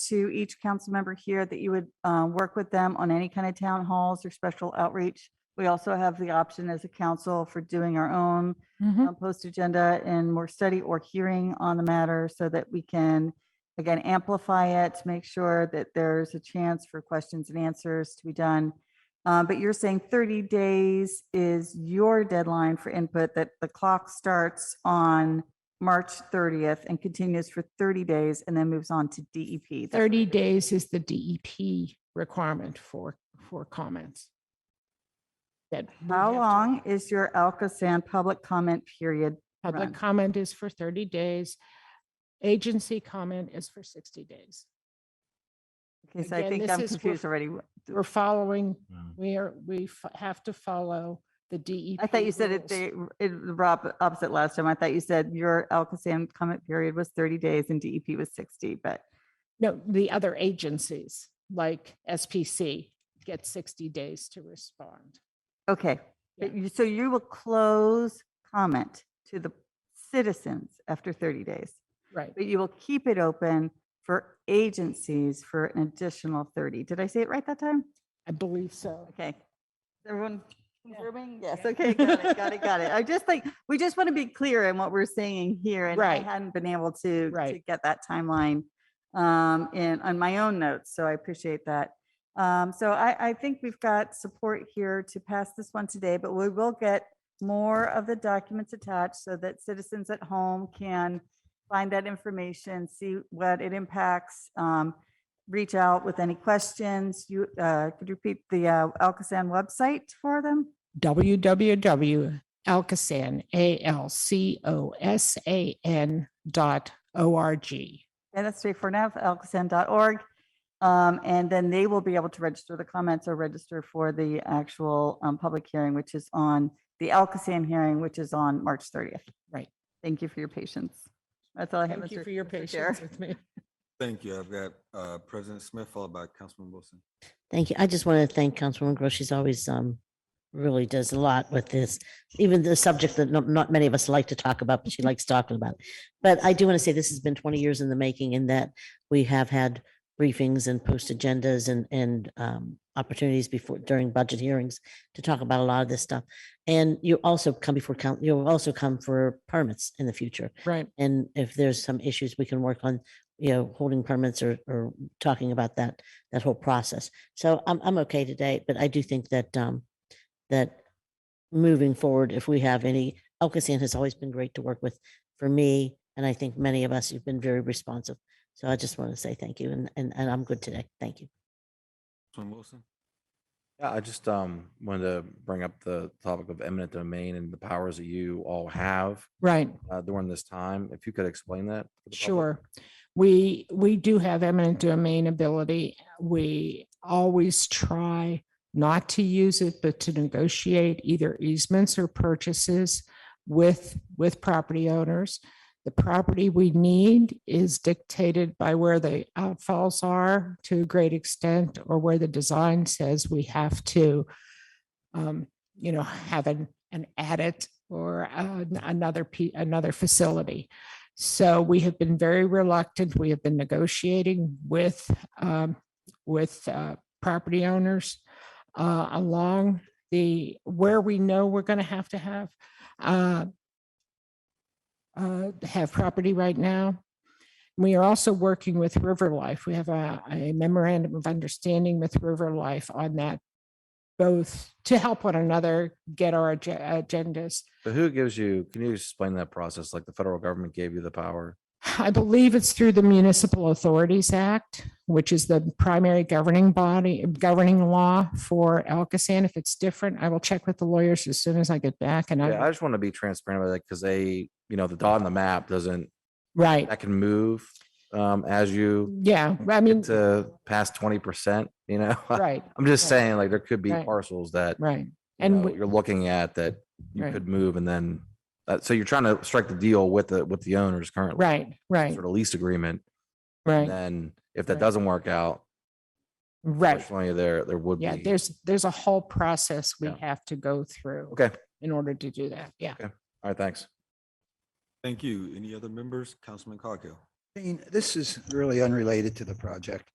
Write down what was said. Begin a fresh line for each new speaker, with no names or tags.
to each council member here that you would uh, work with them on any kind of town halls or special outreach. We also have the option as a council for doing our own
Mhm.
uh, post agenda and more study or hearing on the matter so that we can, again, amplify it, make sure that there's a chance for questions and answers to be done. Uh, But you're saying 30 days is your deadline for input, that the clock starts on March 30th and continues for 30 days and then moves on to DEP. That's-
30 days is the DEP requirement for, for comments. That we have
How
to-
long is your Alcoasand public comment period? run?
Public comment is for 30 days. Agency comment is for 60 days.
Okay, so I
Again,
think
this
I'm
is for-
confused already.
We're following,
Mm.
we are, we f- have to follow the DEP.
I thought you said it,
rules.
they, it, Rob, opposite last time. I thought you said your Alcoasand comment period was thirty days and DEP was sixty, but
No, the other agencies, like SPC, get 60 days to respond.
okay. But you- So you will close comment to the citizens after thirty days,
Right.
but you will keep it open for agencies for an additional thirty. Did I say it right that time?
I believe so.
Okay. Is Everyone confirming? Yes,
Yeah.
okay, got it, got it, got it. I just like, we just want to be clear in what we're saying here. and I
Right.
hadn't been able to, to
Right.
get that timeline um, in, on my own notes, so I appreciate that. Um, So I, I think we've got support here to pass this one today, but we will get more of the documents attached so that citizens at home can find that information, see what it impacts, um, reach out with any questions. You, uh, could you repeat the uh, Alcoasand website for them?
www.alcosan, A-L-C-O-S-A-N dot O-R-G.
And that's straight for now, alcoasand.org. Um, And then they will be able to register the comments or register for the actual um, public hearing, which is on, the Alcoasand hearing, which is on March 30th.
Right.
Thank you for your patience. That's all I have.
Thank you
Mr.
for your
Mr. Chair.
patience with me.
Thank you. I've got uh, President Smith followed by Councilman Wilson.
Thank you. I just want to thank Councilwoman Gross. She's always um really does a lot with this, even the subject that not, not many of us like to talk about, but she likes talking about. it. But I do want to say this has been 20 years in the making in that we have had briefings and post agendas and and um, opportunities before during budget hearings to talk about a lot of this stuff. And you also come before count. You'll also come for permits in the future.
Right.
And if there's some issues we can work on, you know, holding permits or, or talking about that, that whole process. So I'm, I'm okay today, but I do think that, um, that moving forward, if we have any, Elkasand has always been great to work with for me. And I think many of us, you've been very responsive. So I just want to say thank you and, and, and I'm good today. Thank you.
Councilman Wilson?
Yeah, I just um wanted to bring up the topic of eminent domain and the powers that you all have
Right.
uh, during this time. If you could explain that. for the public.
Sure. We, we do have eminent domain ability. We always try not to use it, but to negotiate either easements or purchases with, with property owners. The property we need is dictated by where the outfalls are to a great extent, or where the design says we have to, um, you know, have an, an adit or uh, another, pe- another facility. So we have been very reluctant. We have been negotiating with, um, with, uh, property owners, uh, along the, where we know we're going to have to have, uh, uh, have property right now. We are also working with River Life. We have a a memorandum of understanding with River Life on that, both to help one another get our ag- agendas
So who gives you, can you explain that process? Like the federal government gave you the power?
I believe it's through the Municipal Authorities Act, which is the primary governing body, governing law for Alcoasand. If it's different, I will check with the lawyers as soon as I get back and
Yeah, I
I,
just want to be transparent about that because they, you know, the dot on the map doesn't,
right,
that can move um as you
yeah, I mean,
get to past twenty percent, you know?
right,
I'm just
right.
saying, like, there could be
Right.
parcels that
right.
and
And we-
you're looking at that you
Right.
could move and then uh, so you're trying to strike the deal with the with the owners currently
Right, right,
sort of lease agreement and
right,
then if that
Right.
doesn't work out
right.
unfortunately there there would
Yeah,
be
there's, there's a whole process we
Yeah.
have to go through
okay
in order to do that. Yeah.
all right thanks
Thank you. Any other members? Councilman Coghill? Dean, this is really unrelated to the project.